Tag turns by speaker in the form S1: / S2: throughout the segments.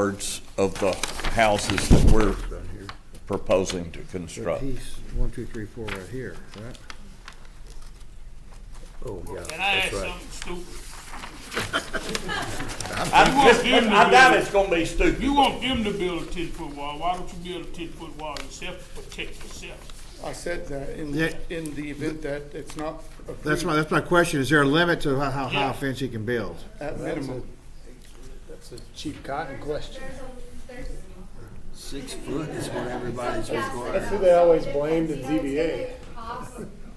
S1: yards of the houses that we're proposing to construct.
S2: Piece, one, two, three, four right here, right? Oh, yeah,
S3: Can I ask
S2: that's right.
S3: something stupid?
S1: I
S3: You want them to
S1: I doubt
S3: build-
S1: it's gonna be stupid.
S3: You want them to build a ten foot wall, why don't you build a ten foot wall yourself to protect yourself?
S4: I said that in,
S2: Yeah.
S4: in the event that it's not
S2: That's my,
S4: approved
S2: that's my question, is there a limit to how, how high
S3: Yeah.
S2: a fence you can build?
S4: at minimum.
S5: Chief Cotton question.
S6: Six foot is what everybody's
S5: That's
S6: requiring.
S5: who they always blamed in ZBA.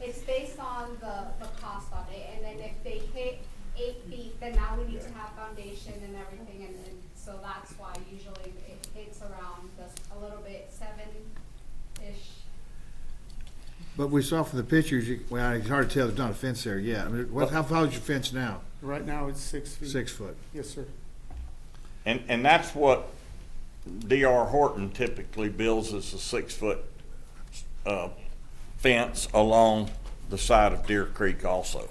S7: It's based on the, the cost of it, and then if they hit eight feet, then now we need to have foundation and everything, and, and so that's why usually it hits around this, a little bit, seven-ish.
S2: But we saw from the pictures, you, well, it's hard to tell, there's not a fence there yet. I mean, what, how far is your fence now?
S4: Right now, it's six feet.
S2: Six foot.
S4: Yes, sir.
S1: And, and that's what D.R. Horton typically builds as a six-foot uh, fence along the side of Deer Creek also.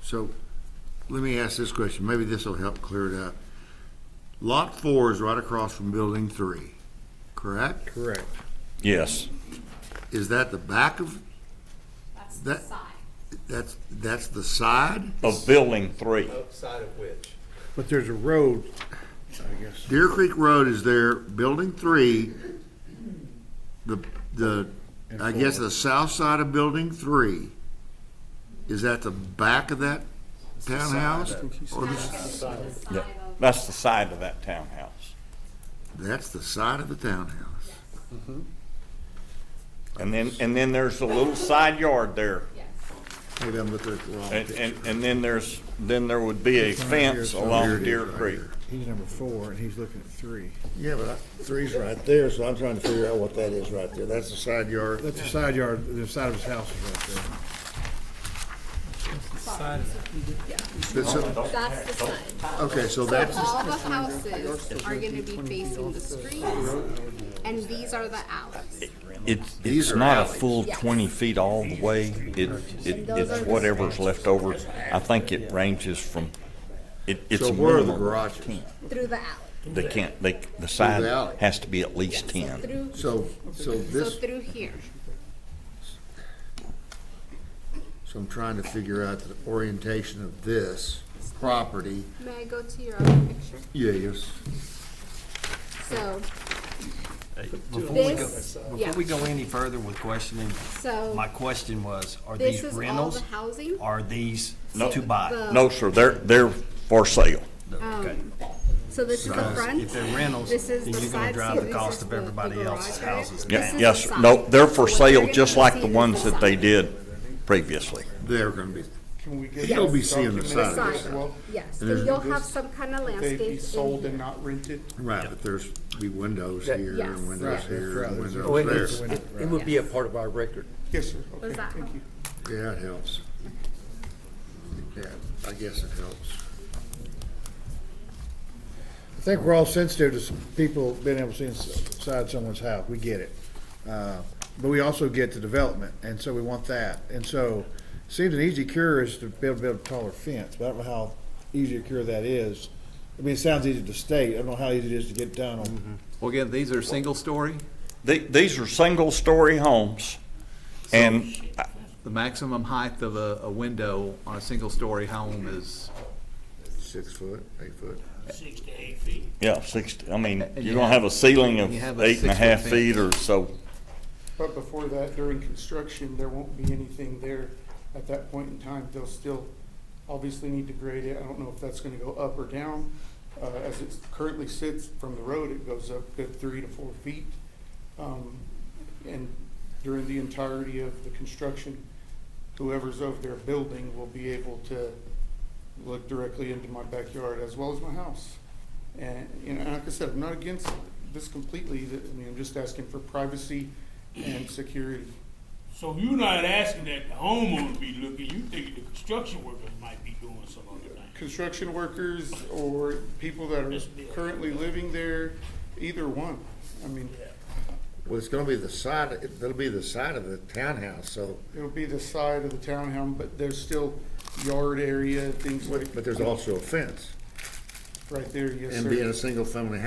S8: So, let me ask this question, maybe this will help clear it up. Lot four is right across from building three, correct?
S2: Correct.
S1: Yes.
S8: Is that the back of,
S7: That's the
S8: That-
S7: side.
S8: that's, that's the side?
S1: Of Building Three.
S2: But there's a road, I guess.
S8: Deer Creek Road is there, building three, the, the, I guess the south side of building three, is that the back of that townhouse? Or the-
S7: That's the side of-
S1: That's the side of that townhouse.
S8: That's the side of the townhouse.
S1: And then, and then there's a little side yard there.
S7: Yes.
S8: Maybe I'm looking at the wrong
S1: And,
S8: picture.
S1: and, and then there's, then there would be a fence
S8: Here it
S1: along
S8: is
S1: Deer
S8: right
S1: Creek.
S8: here.
S2: He's number four, and he's looking at three.
S8: Yeah, but I- three's right there, so I'm trying to figure out what that is right there. That's the side yard.
S2: That's the side yard, the side of his house is right there.
S8: That's a-
S9: That's the side.
S8: Okay, so that's,
S9: All the houses are gonna be facing the streets, and these are the alleys.
S1: It's,
S8: These
S1: it's
S8: are
S1: not a
S8: alleys.
S1: full twenty feet all the way. It, it, it's whatever's left over. I think it ranges from, it, it's
S8: so
S1: a
S8: where are the
S1: minimum.
S8: garages?
S9: Through the alley,
S1: They can't, they, the side
S8: the alley.
S1: has to be at least ten.
S9: through,
S8: So, so
S9: so
S8: this,
S9: through here.
S8: so I'm trying to figure out the orientation of this property.
S9: May I go to your other picture?
S8: Yeah, yes.
S9: So,
S5: Before we go,
S9: this, yeah,
S5: before we go any further with questioning, my
S9: so
S5: question was, are
S9: this
S5: these
S9: is all the
S5: rentals?
S9: housing.
S5: Are these to buy?
S9: The-
S1: No, sir, they're, they're for sale.
S5: Okay.
S9: So this is the front.
S5: If they're rentals,
S9: This is
S5: then
S9: the
S5: you're gonna
S9: side,
S5: drive
S9: so
S5: the
S9: this
S5: cost
S9: is
S5: of
S9: the- the
S5: everybody else's
S9: garage area.
S5: houses
S1: Yeah,
S9: This is
S1: Yes,
S9: the
S1: sir.
S9: side.
S1: no, they're for
S9: What you're
S1: sale
S9: gonna
S1: just like
S9: see
S1: the
S9: is
S1: ones that they
S9: side.
S1: did previously.
S8: They're gonna be,
S4: Can we get?
S8: You'll be seeing the
S4: documented
S8: side.
S4: as well?
S9: Yes,
S8: And there's-
S9: and you'll have some kind of
S4: They'd
S9: landscape
S4: be
S9: in
S4: sold and
S9: here.
S4: not rented?
S8: right, but there's be windows here
S9: yes.
S8: and
S2: Right,
S8: windows
S2: that's
S8: here
S2: right.
S8: and
S2: There's a
S8: windows there.
S2: window, right.
S5: would be a part of our record.
S4: Yes, sir.
S9: Does
S4: Okay,
S9: that
S4: thank
S9: help?
S4: you.
S8: Yeah, it helps. Yeah, I guess it helps.
S2: I think we're all sensitive to s- people being able to see inside someone's house. We get it. Uh, But we also get the development, and so we want that. And so, seems an easy cure is to build, build a taller fence, but I don't know how easy a cure that is. I mean, it sounds easy to state. I don't know how easy it is to get done
S8: Mm-hmm.
S2: on.
S10: Well, again, these are single-story.
S1: The- These are single-story homes, and
S10: The maximum height of a, a window on a single-story home is,
S8: Six foot, eight foot.
S3: Six to eight feet.
S1: Yeah, six, I mean,
S10: And you
S1: you're gonna
S10: have-
S1: have a ceiling of
S10: you have a
S1: eight and a
S10: six-foot
S1: half
S10: fence.
S1: feet or so.
S4: But before that, during construction, there won't be anything there at that point in time. They'll still obviously need to grade it. I don't know if that's gonna go up or down. Uh, as it currently sits from the road, it goes up good three to four feet. Um, and during the entirety of the construction, whoever's over there building will be able to look directly into my backyard as well as my house. And, you know, and like I said, I'm not against this completely, that- I mean, I'm just asking for privacy and security.
S3: So you're not asking that the homeowner be looking, you think the construction workers might be doing some other thing.
S4: Construction workers or people that are currently living there, either one, I mean,
S8: Well, it's gonna be the side, it'll be the side of the townhouse, so,
S4: it'll be the side of the townhome, but there's still yard area, things like,
S8: but there's also a fence.
S4: right there, yes, sir.
S8: And being a single-family